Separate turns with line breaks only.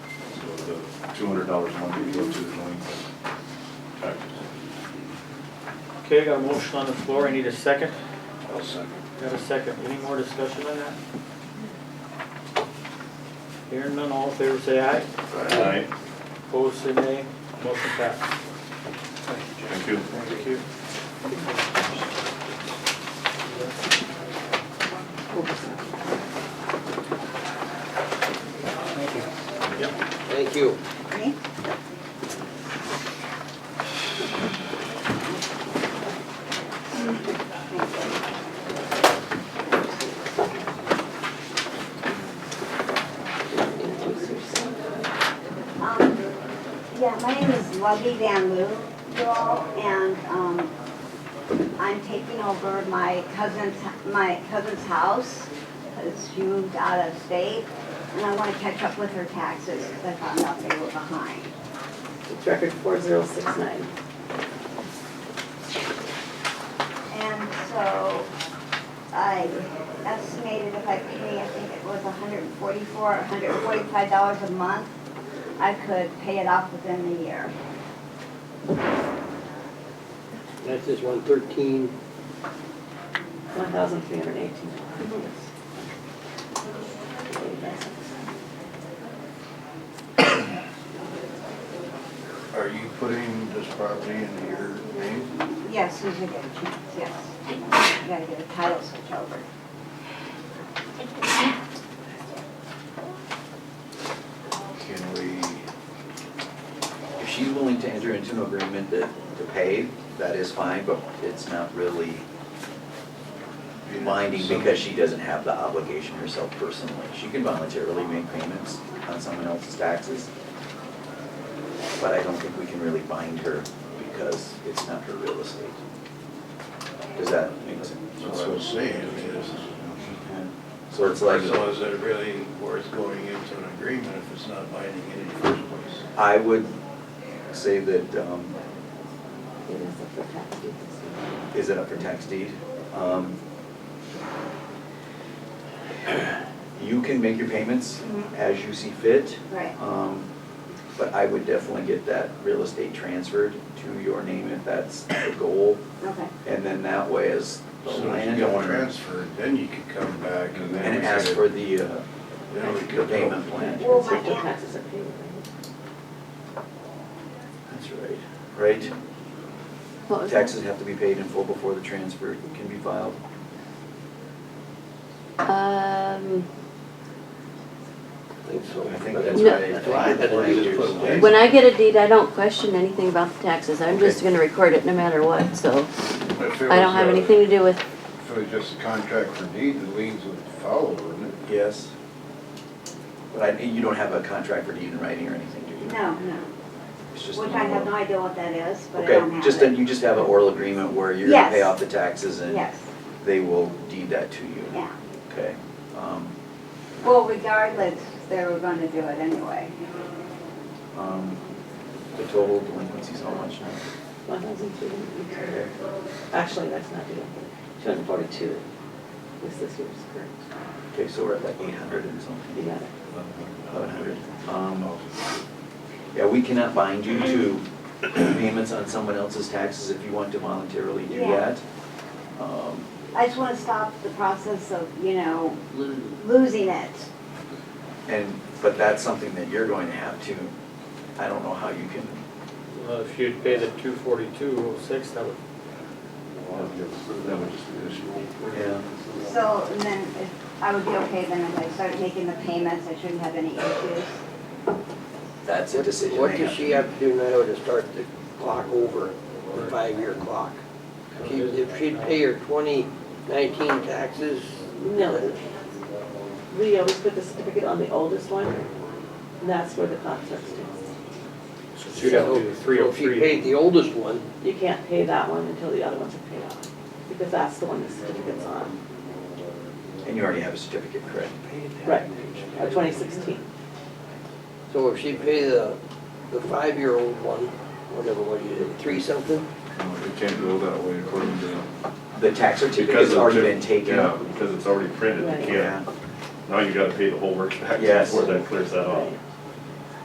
the two hundred dollars a month you go to the delinquent taxes.
Okay, got a motion on the floor, I need a second.
I'll second.
Got a second, any more discussion on that? Hearing none, all in favor say aye.
Aye.
Opposed, say nay. Motion passed.
Thank you.
Thank you.
Thank you.
Um, Um, Yeah, my name is Lovey Van Loo, y'all, and um, I'm taking over my cousin's, my cousin's house, because she moved out of state, and I want to catch up with her taxes, because I found out they were behind.
It's record four zero six nine.
And so I estimated if I pay, I think it was $144, $145 a month, I could pay it off within the year.
That's just one thirteen.
One thousand three hundred eighteen dollars.
Are you putting this property into your name?
Yes, Susan got a chance, yes. You gotta get a title switch over.
Can we,
If she's willing to enter into an agreement that, to pay, that is fine, but it's not really binding because she doesn't have the obligation herself personally. She can voluntarily make payments on someone else's taxes, but I don't think we can really bind her because it's not her real estate. Does that make sense?
That's what I'm saying is,
So it's like.
so is it really worth going into an agreement if it's not binding in the first place?
I would say that, um,
It
is
is up for tax deed this year.
it up for tax deed? Um, You can make your payments
Mhm.
as you see fit.
Right.
Um, But I would definitely get that real estate transferred to your name if that's the goal.
Okay.
And then that way as the
So if you get
landowner
transferred, then you could come back and then.
and
we
ask
could-
for the, uh,
Then we
the
could.
payment plan.
Well,
It's
my
if the
aunt-
taxes are paid,
That's right. Right?
right?
Taxes have to be paid in full before the transfer can be filed.
Um,
I think so.
I think that's
No.
right. I think
Right,
that's
then you just put
right.
it
when I get a deed, I don't question anything about the taxes, I'm just gonna record it no matter what, so
If it
I don't
was uh,
have
a-
anything to do with,
If it was just a contract for deed, the liens would follow, wouldn't it?
Yes. But I, you don't have a contract for deed in writing or anything, do you?
No, no,
It's just.
which
an
I have no
oral-
idea what that is, but I don't
Okay,
have
just that
it.
you just have an oral agreement where you're gonna pay
Yes.
off the taxes and
Yes,
they will deed that to you.
yeah.
Okay. Um,
Well, regardless, they were gonna do it anyway.
um, the total delinquency is how much now?
One thousand three hundred eighteen. Actually, that's not due. Two hundred forty-two is this year's current.
Okay, so we're at like eight hundred and something.
You got it.
Eleven hundred. Um, yeah, we cannot bind you to payments on someone else's taxes if you want to voluntarily do
Yeah.
that. Um,
I just wanna stop the process of, you know, losing it.
And, but that's something that you're going to have to, I don't know how you can,
Well, if you'd pay the two forty-two oh six, that would,
That would just be additional.
yeah.
So, and then if, I would be okay then if I started making the payments, I shouldn't have any issues.
that's a decision
What
they
does
to
she have to do now to start the clock over, the five-year clock? She- If she'd pay her twenty nineteen taxes,
No. We always put the certificate on the oldest one, and that's where the contract starts.
so you'd have to do the three oh
So If she
three.
paid the oldest one,
You can't pay that one until the other ones are paid off, because that's the one the certificate's on.
And you already have a certificate, correct?
Right, twenty sixteen.
so if she paid the, the five-year-old one, whatever, what you did, three something?
No, You can't go that way according to.
The tax
because
certificate's
of
already
the-
been taken.
Yeah, because it's already printed, you
Right.
can't, now you gotta pay the whole work tax
Yes.
before that clears that off.